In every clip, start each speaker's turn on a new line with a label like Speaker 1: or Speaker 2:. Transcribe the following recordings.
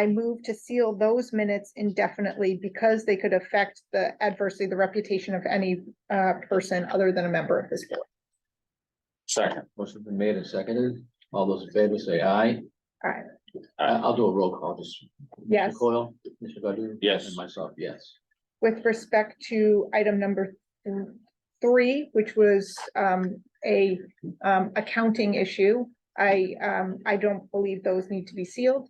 Speaker 1: I move to seal those minutes indefinitely because they could affect the adversely, the reputation of any uh person other than a member of this board.
Speaker 2: Second.
Speaker 3: Motion been made and seconded. All those in favor say aye.
Speaker 1: Aye.
Speaker 3: I- I'll do a roll call, just.
Speaker 1: Yes.
Speaker 3: Mr. Coyle, Mr. Godu?
Speaker 2: Yes.
Speaker 3: And myself, yes.
Speaker 1: With respect to item number th- three, which was um a um accounting issue. I um, I don't believe those need to be sealed.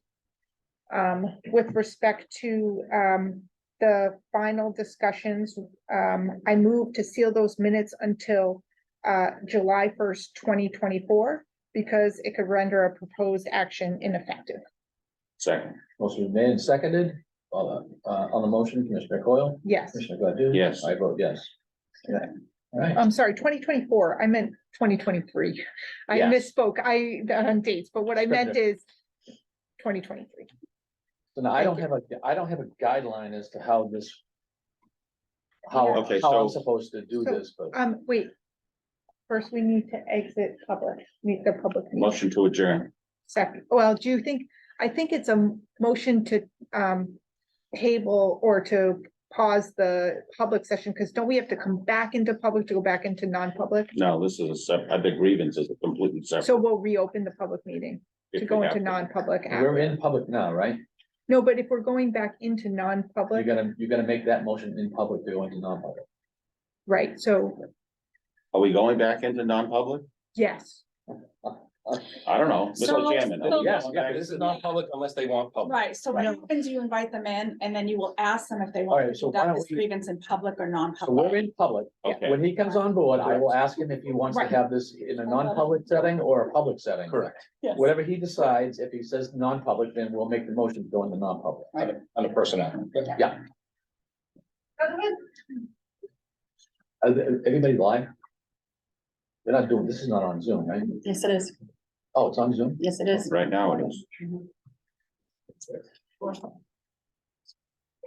Speaker 1: Um, with respect to um the final discussions, um, I move to seal those minutes until uh July first, twenty twenty-four, because it could render a proposed action ineffective.
Speaker 2: Second.
Speaker 3: Motion been made and seconded. All the, uh, on the motion, Commissioner Coyle?
Speaker 1: Yes,
Speaker 3: Commissioner Godu?
Speaker 2: Yes.
Speaker 3: I vote yes.
Speaker 1: Yeah.
Speaker 3: All right.
Speaker 1: I'm sorry, twenty twenty-four, I meant twenty twenty-three. I
Speaker 2: Yeah.
Speaker 1: misspoke, I, on dates, but what I meant is twenty twenty-three.
Speaker 3: So now I don't
Speaker 1: Thank
Speaker 3: have a, I don't have a guideline as to how this. How,
Speaker 2: Okay,
Speaker 3: how I'm
Speaker 2: so-
Speaker 3: supposed to do
Speaker 1: So,
Speaker 3: this, but
Speaker 1: Um, wait. First, we need to exit public, meet the public. meeting.
Speaker 2: Motion to adjourn.
Speaker 1: Second, well, do you think, I think it's a motion to um table or to pause the public session, because don't we have to come back into public to go back into non-public?
Speaker 2: No, this is a sep, I think grievance is a completely separate.
Speaker 1: So we'll reopen the public meeting
Speaker 2: if
Speaker 1: to
Speaker 2: we
Speaker 1: go
Speaker 2: have
Speaker 1: into
Speaker 2: to.
Speaker 1: non-public. after.
Speaker 3: we're in public now, right?
Speaker 1: No, but if we're going back into
Speaker 3: You're
Speaker 1: non-public,
Speaker 3: gonna, you're gonna make that motion in public to go into non-public.
Speaker 1: right, so,
Speaker 2: Are we going back into non-public?
Speaker 1: yes.
Speaker 2: I don't know.
Speaker 4: So-
Speaker 2: Mr. Chairman.
Speaker 4: so-
Speaker 3: Yes, yeah, this is non-public unless they want public.
Speaker 4: Right, so what
Speaker 2: Right.
Speaker 4: happens, you invite them in and then you will ask them if they
Speaker 3: All
Speaker 4: want
Speaker 3: right,
Speaker 4: to
Speaker 3: so why don't
Speaker 4: conduct this
Speaker 3: we-
Speaker 4: grievance in public
Speaker 3: So
Speaker 4: or
Speaker 3: we're
Speaker 4: non-public.
Speaker 3: in public.
Speaker 2: Okay,
Speaker 3: When he comes on board, I will ask him if he wants to
Speaker 1: Right.
Speaker 3: have this in a non-public setting or a public setting. Correct.
Speaker 4: Yes.
Speaker 3: Whatever he decides, if he says non-public, then we'll make the motion to go into non-public.
Speaker 5: on the personnel.
Speaker 3: Yeah. Are they- Everybody live? They're not doing, this is not on Zoom, right?
Speaker 6: Yes, it is.
Speaker 3: Oh, it's on Zoom?
Speaker 6: Yes, it is.
Speaker 2: right now it is.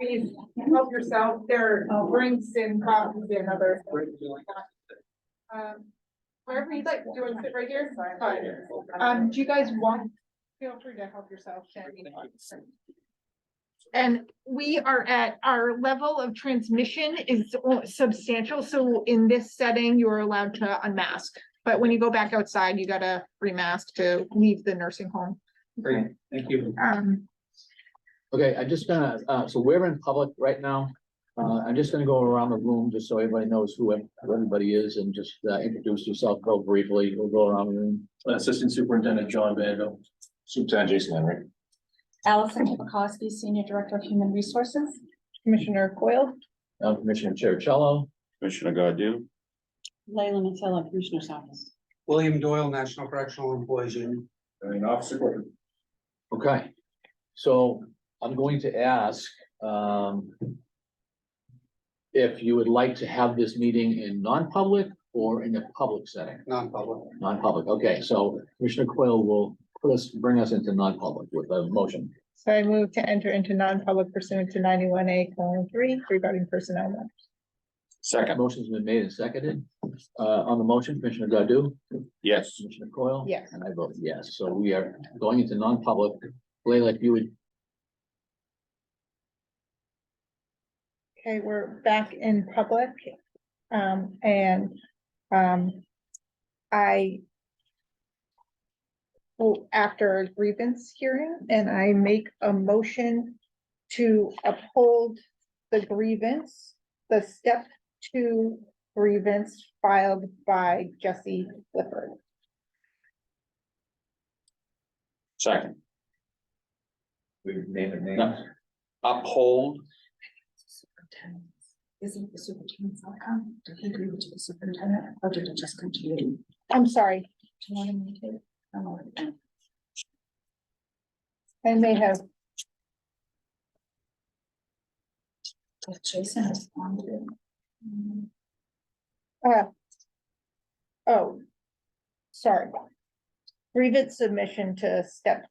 Speaker 1: Please help yourself, there are drinks and coffees and other. Um, Wherever you'd like, do you want to sit right here? Fine. Um, do you guys want, feel free to help yourself. And we are at, our level of transmission is substantial, so in this setting, you're allowed to unmask. But when you go back outside, you gotta remask to leave the nursing home.
Speaker 5: Great, thank you.
Speaker 1: Um,
Speaker 3: Okay, I'm just gonna, uh, so we're in public right now. Uh, I'm just gonna go around the room just so everybody knows who ev- who everybody is and just uh, introduce yourself real briefly. We'll go around the room.
Speaker 5: Assistant Superintendent John Vanville. Superintendent Jason Henry.
Speaker 4: Allison Kipakowski, Senior Director of Human Resources.
Speaker 1: Commissioner Coyle?
Speaker 3: Uh, Commissioner Cherichello,
Speaker 2: Commissioner Godu,
Speaker 6: Leila Matilla, Commissioner's Office.
Speaker 7: William Doyle, National Correctional Employees Union.
Speaker 5: And Officer Gordon.
Speaker 3: Okay, so I'm going to ask, um. If you would like to have this meeting in non-public or in a public setting,
Speaker 7: non-public.
Speaker 3: non-public, okay, so Commissioner Coyle will put us, bring us into non-public with a motion.
Speaker 1: So I move to enter into non-public pursuant to ninety-one A colon three regarding personnel. matters.
Speaker 2: second,
Speaker 3: Motion's been made and seconded, uh, on the motion, Commissioner Godu,
Speaker 2: yes.
Speaker 3: Commissioner Coyle?
Speaker 1: Yes.
Speaker 3: And I vote yes, so we are going into non-public, Leila, if you would,
Speaker 1: Okay, we're back in public. Um, and, um, I well, after a grievance hearing, and I make a motion to uphold the grievance, the step two grievance filed by Jesse Clifford.
Speaker 2: Second,
Speaker 5: We name it
Speaker 3: No.
Speaker 2: uphold,
Speaker 4: Isn't the superintendent's outcome? Did he agree with the superintendent or did it just continue? Do
Speaker 1: I'm sorry,
Speaker 4: you want me to? I don't know.
Speaker 1: I may have
Speaker 4: If Jason responded. mm,
Speaker 1: Uh. Oh. Sorry. Grievance submission to step.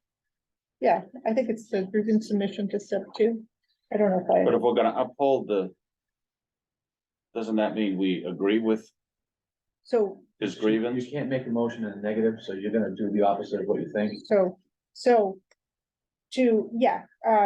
Speaker 1: Yeah, I think it's the grievance submission to step two. I don't know
Speaker 2: but
Speaker 1: if
Speaker 2: if we're gonna uphold the. Doesn't that mean we agree with
Speaker 1: I, so,
Speaker 2: his grievance?
Speaker 3: You can't make a motion in a negative, so you're gonna do the opposite of what you think.
Speaker 1: so, so. To, yeah, uh,